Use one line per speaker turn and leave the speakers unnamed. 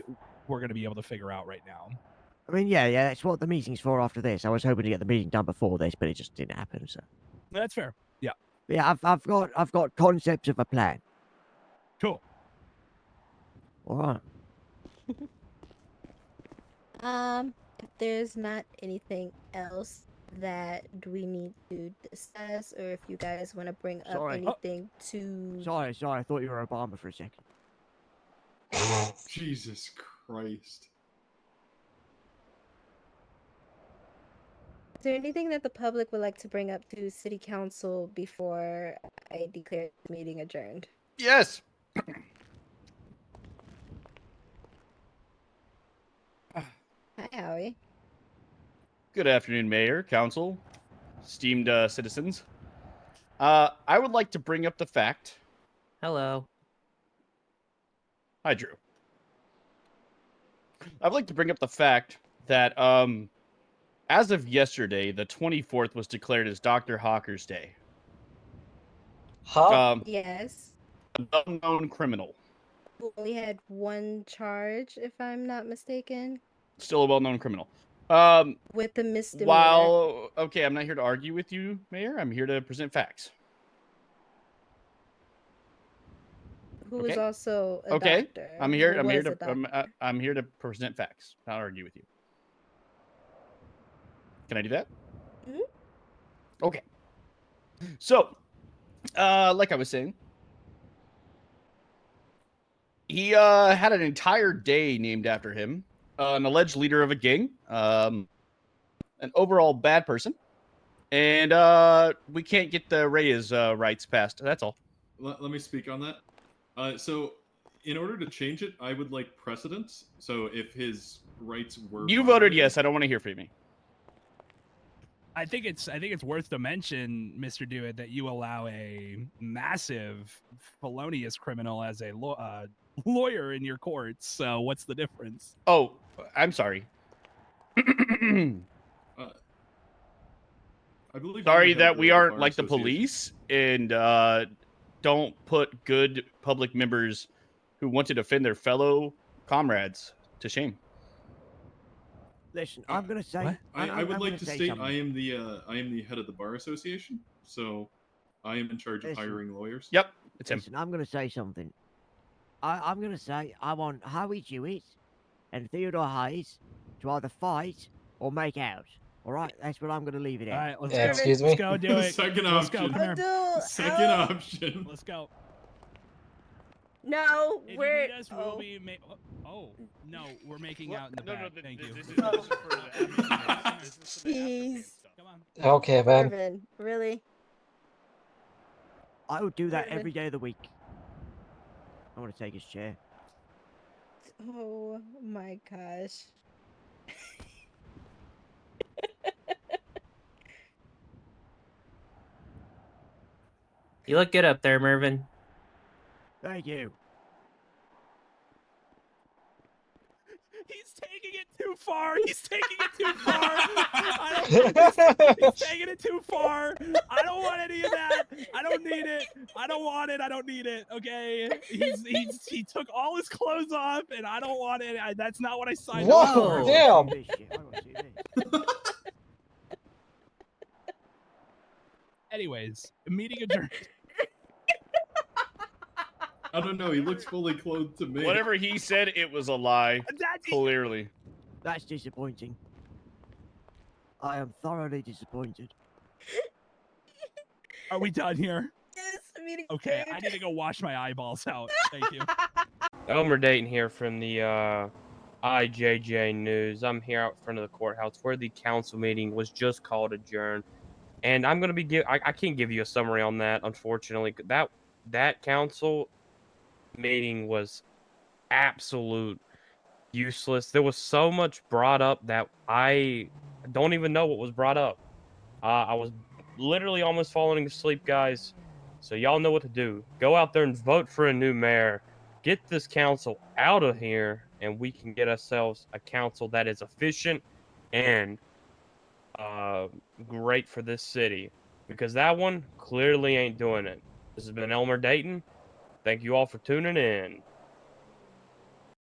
we're going to be able to figure out right now.
I mean, yeah, yeah, that's what the meeting's for after this. I was hoping to get the meeting done before this, but it just didn't happen. So,
That's fair.
yeah, I've, I've got, I've got concepts of a plan.
Cool.
All right.
Um, if there's not anything else that we need to discuss, or if you guys want to bring up
Sorry. Oh.
anything to
Sorry, sorry. I thought you were Obama for a second.
Jesus Christ.
Is there anything that the public would like to bring up to City Council before I declare the meeting adjourned?
Yes.
Hi, Howie.
Good afternoon, Mayor, Council, esteemed uh, citizens. Uh, I would like to bring up the fact.
Hello.
Hi, Drew. I'd like to bring up the fact that, um, as of yesterday, the 24th was declared as Dr. Hawker's Day.
Oh.
Uh,
Huh?
Um,
Yes.
an unknown criminal,
We only had one charge, if I'm not mistaken,
still a well-known criminal. Um,
with the misdemeanor.
while okay, I'm not here to argue with you, Mayor. I'm here to present facts.
who was
okay.
also a
Okay,
doctor.
I'm here.
who
I'm here
was
to.
a
I'm, uh,
doctor.
I- I'm here to present facts, not argue with you. Can I do that?
Mhm.
Okay. So, uh, like I was saying, he uh, had an entire day named after him. Uh, an alleged leader of a gang, um, an overall bad person, and uh, we can't get the Reyes uh, rights passed. That's all.
Let, let me speak on that. Uh, so, in order to change it, I would like precedence. So, if his rights were
You voted
violated-
yes. I don't want to hear from you.
I think it's I think it's worth to mention, Mister Dewitt, that you allow a massive felonious criminal as a law, uh, lawyer in your courts. So what's the difference?
Oh, I'm sorry.
I believe you
sorry
have
that we
the
aren't
bar
like the
association.
police and uh, don't put good public members who want to defend their fellow comrades to shame.
Listen,
Uh,
I'm gonna say.
what?
I, I
I'm
would
gonna
like to
say
state
something.
I am the uh, I am the head of the bar association, so I am in charge of
Listen.
hiring lawyers.
Yep, it's him.
Listen, I'm going to say something. I, I'm going to say I want Howie Jewett and Theodore Hayes to either fight or make out. All right, that's what I'm going to leave it
All
at.
right, let's
Yeah,
go.
excuse
Let's
me?
go do it.
Second
Let's go. Oh.
option.
Come here.
Adult,
Second
out.
option.
Let's go.
No,
If
we're.
you need us,
oh.
we'll be ma- oh no, we're making out in the
no,
back.
no, th-
Thank
th-
you.
This is, this is for the aftercare. This is for the
Jeez.
aftercare stuff.
Come on.
Okay, man.
Irvin, really?
I would do that
Irvin.
every day of the week. I want to take his chair.
Oh my gosh.
You look good up there, Mervin.
Thank you.
He's taking it too far. He's taking it too far. I don't like this. He's taking it too far. I don't want any of that. I don't need it. I don't want it. I don't need it. Okay. He's he's he took all his clothes off, and I don't want it. I, that's not what I signed up
Whoa,
for.
I
damn.
wanna see this shit, I wanna see this.
Anyways, meeting adjourned.
I don't know. He looks fully clothed to me.
Whatever he said, it was a lie.
That's
Clearly.
That's disappointing. I am thoroughly disappointed.
Are we done here?
Yes, meeting.
Okay. I
adjourned.
need to go wash my eyeballs out. Thank you.
Elmer Dayton here from the uh, IJJ News. I'm here out front of the courthouse where the council meeting was just called adjourned, and I'm gonna be give. I, I can't give you a summary on that, unfortunately. 'cause That that council meeting was absolute useless. There was so much brought up that I don't even know what was brought up. Uh, I was literally almost falling asleep, guys. So y'all know what to do. Go out there and vote for a new mayor get this council out of here and we can get ourselves a council that is efficient and uh, great for this city because that one clearly ain't doing it. This has been Elmer Dayton. Thank you all for tuning in.